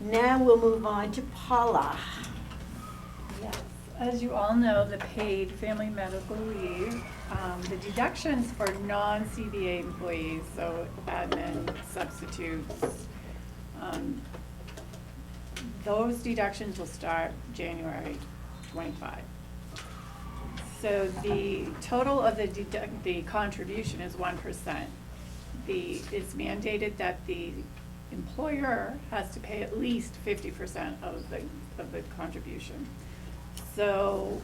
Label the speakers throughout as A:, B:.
A: Now we'll move on to Paula.
B: Yes, as you all know, the paid family medical leave, um, the deductions for non-CBA employees, so admin substitutes, um, those deductions will start January twenty-five. So the total of the deduct, the contribution is one percent. The, it's mandated that the employer has to pay at least fifty percent of the, of the contribution. So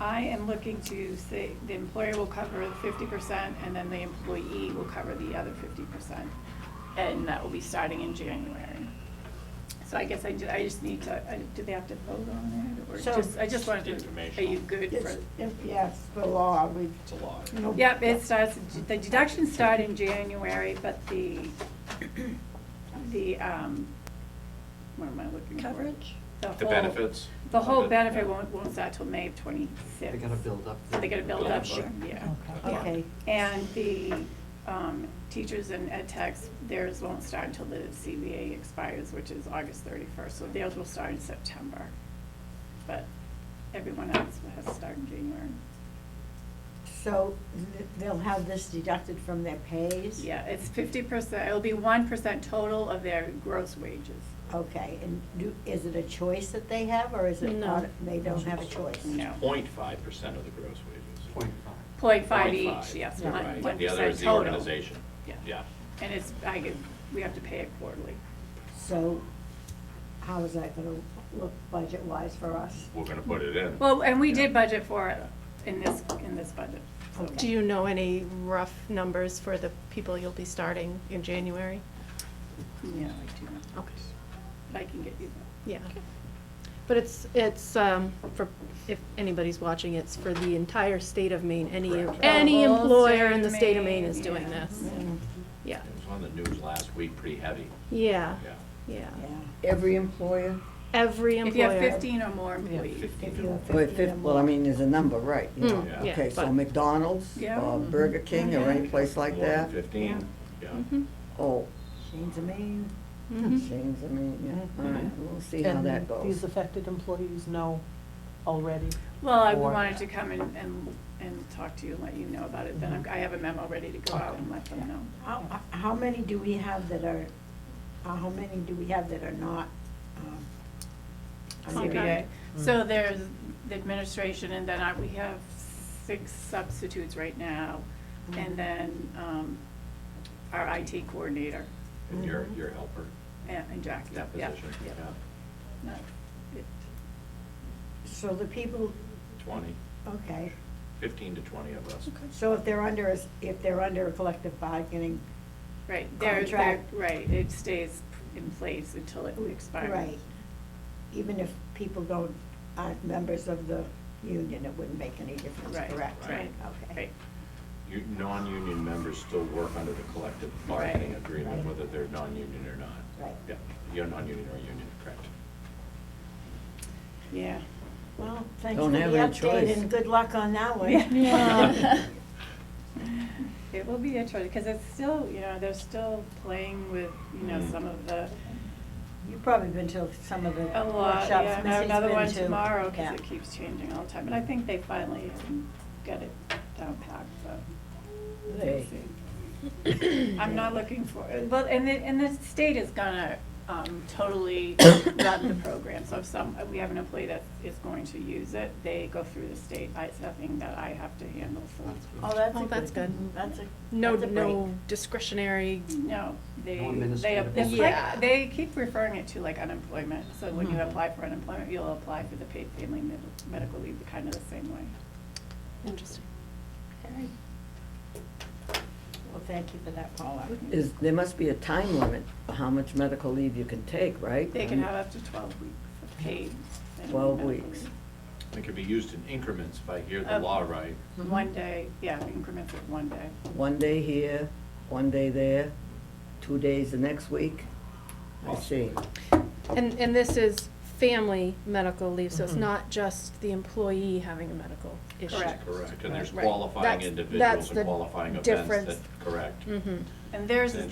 B: I am looking to say the employer will cover fifty percent and then the employee will cover the other fifty percent. And that will be starting in January. So I guess I ju- I just need to, I- do they have to vote on it or
A: So-
B: just, I just wanted to, are
C: Informational.
B: you good
D: It's,
B: for?
D: if- yes, the law, we've,
C: It's a lot.
D: no.
B: Yep, it starts, the deductions start in January, but the, the, um, what am I looking for?
A: Coverage?
C: The
B: whole-
C: benefits?
B: The whole
C: Yeah.
B: benefit won't, won't start till May of twenty-six.
E: They're gonna build up.
B: They gotta build
C: Build
B: up,
C: up, sure.
B: yeah.
C: Yeah.
A: Okay,
B: And the, um, teachers and ed techs, theirs won't start until the CBA expires, which is August thirty-first, so theirs will start in September. But everyone else has to start in January.
A: so th- they'll have this deducted from their pays?
B: Yeah, it's fifty percent, it'll be one percent total of their gross wages.
A: Okay, and do, is it a choice that they have, or is it
F: No.
A: not, they don't have a choice?
B: No.
C: Point five percent of the gross wages.
E: Point five.
B: Point five
C: Point
B: each, yes, one, one percent total.
C: Right, the other is the organization.
B: Yeah.
C: Yeah.
B: And it's, I get, we have to pay it quarterly.
A: So how is that gonna look budget-wise for us?
C: We're gonna put it in.
B: Well, and we did budget for it in this, in this budget. so.
A: Okay.
F: Do you know any rough numbers for the people you'll be starting in January?
B: Yeah, I do, know.
F: Okay.
B: I can get you
F: Yeah. But it's, it's, um, for, if anybody's watching, it's for the entire state of Maine. Any,
C: Correct.
F: any
B: The whole
F: employer
B: state
F: in the
B: of
F: state of
B: Maine,
F: Maine is doing
B: yeah.
F: this. Yeah,
C: It was on the news last week, pretty heavy,
F: yeah,
C: yeah.
F: yeah.
A: Yeah.
D: Every employer?
F: Every
B: that. If
F: employer.
B: you have fifteen or more employees.
C: Fifteen
A: If
C: to
A: you
C: one.
A: have
D: Well,
A: 15 or
D: fif- well, I
A: more.
D: mean, there's a number, right, you know.
F: Mm,
C: Yeah.
D: Okay, so
F: but-
D: McDonald's,
B: Yeah.
D: or Burger King, or any place like
C: More than
D: that?
C: Fifteen, yeah.
B: Mm-hmm.
F: Mhm,
D: Oh, Hmm.
A: Shane's a man.
F: mhm.
D: Shane's, I mean, yeah, all right, we'll see how
G: And
D: that
G: These
D: goes.
G: affected employees know already.
B: Well, I
G: Or-
B: wanted to come and, and, and talk to you and let you know about it, then
F: Mm-hmm.
B: I'm- I have a memo ready to go out and let them know.
A: How, how many do we have that are, uh, how many do we have that are not, um,
F: Okay.
B: CBA. So there's the administration, and then I- we have six substitutes right now, and then um, our IT coordinator
C: And your,
D: Mm-hmm.
C: your helper,
B: and and Jackie.
C: that
B: Yeah,
C: position,
B: yeah.
C: yeah,
B: No, it-
A: So the people,
C: twenty,
A: okay,
C: fifteen to twenty of us.
A: so if they're under, a s- if they're under a collective bargaining,
B: Right, they're, they're,
A: Contract.
B: right, it stays in place until it expires.
A: right, even if people don't, aren't members of the union, it wouldn't make any difference,
B: Right,
A: correct?
B: right,
A: Okay.
B: right.
C: You, non-union members still work under the collective bargaining
B: Right.
C: agreement,
A: Right.
C: whether they're non-union or not.
A: Right.
C: Yeah, you're non-union or union, correct.
B: Yeah.
A: Well, thanks for
D: Don't
A: the
D: have any
A: update
D: choice.
A: and good luck on that one.
B: Yeah. It will be interesting, because it's still, you know, they're still playing with, you know,
C: Mm.
B: some of the
A: You've probably been to some of the
B: A lot,
A: workshops.
B: yeah, and I have
A: Missy's
B: another
A: been
B: one
A: to.
B: tomorrow, because
A: Yeah.
B: it keeps changing all the time, and I think they finally um, got it down packed, but.
D: Hey.
B: we'll see. I'm not looking for, well, and the, and the state is gonna, um, totally run the program, so if some, uh, we have an employee that is going to use it, they go through the state, I- it's nothing that I have to handle, so.
A: Oh, that's a
F: Oh,
A: good.
F: that's good.
A: That's a,
F: No,
A: that's a
F: no discretionary,
B: No, they,
E: No
B: they,
E: administrative
B: it's
F: Yeah.
B: like, they keep referring it to like unemployment, so when you
F: Mhm.
B: apply for unemployment, you'll apply for the paid family med- medical leave, kind of the same way.
F: interesting.
A: break. Okay. Well, thank you for that, Paula.
D: Is, there must be a time limit for how much medical leave you can take, right?
B: They can have up to twelve weeks of paid. family
D: 12
B: medical
D: weeks.
B: leave.
C: It could be used in increments, if I hear the
F: Oh.
B: Um,
C: law right.
B: One day, yeah, increments of one day.
D: One day here, one day there, two days the next week. I see.
F: And, and this is family medical leave, so it's not just the employee having a medical issue.
B: Correct.
C: Correct, and there's
F: Right.
C: qualifying
F: That's-
C: individuals
F: that's
C: and
F: the
C: qualifying events
F: difference.
C: that, correct.
F: Mm-hmm.
B: And theirs
C: Then
B: is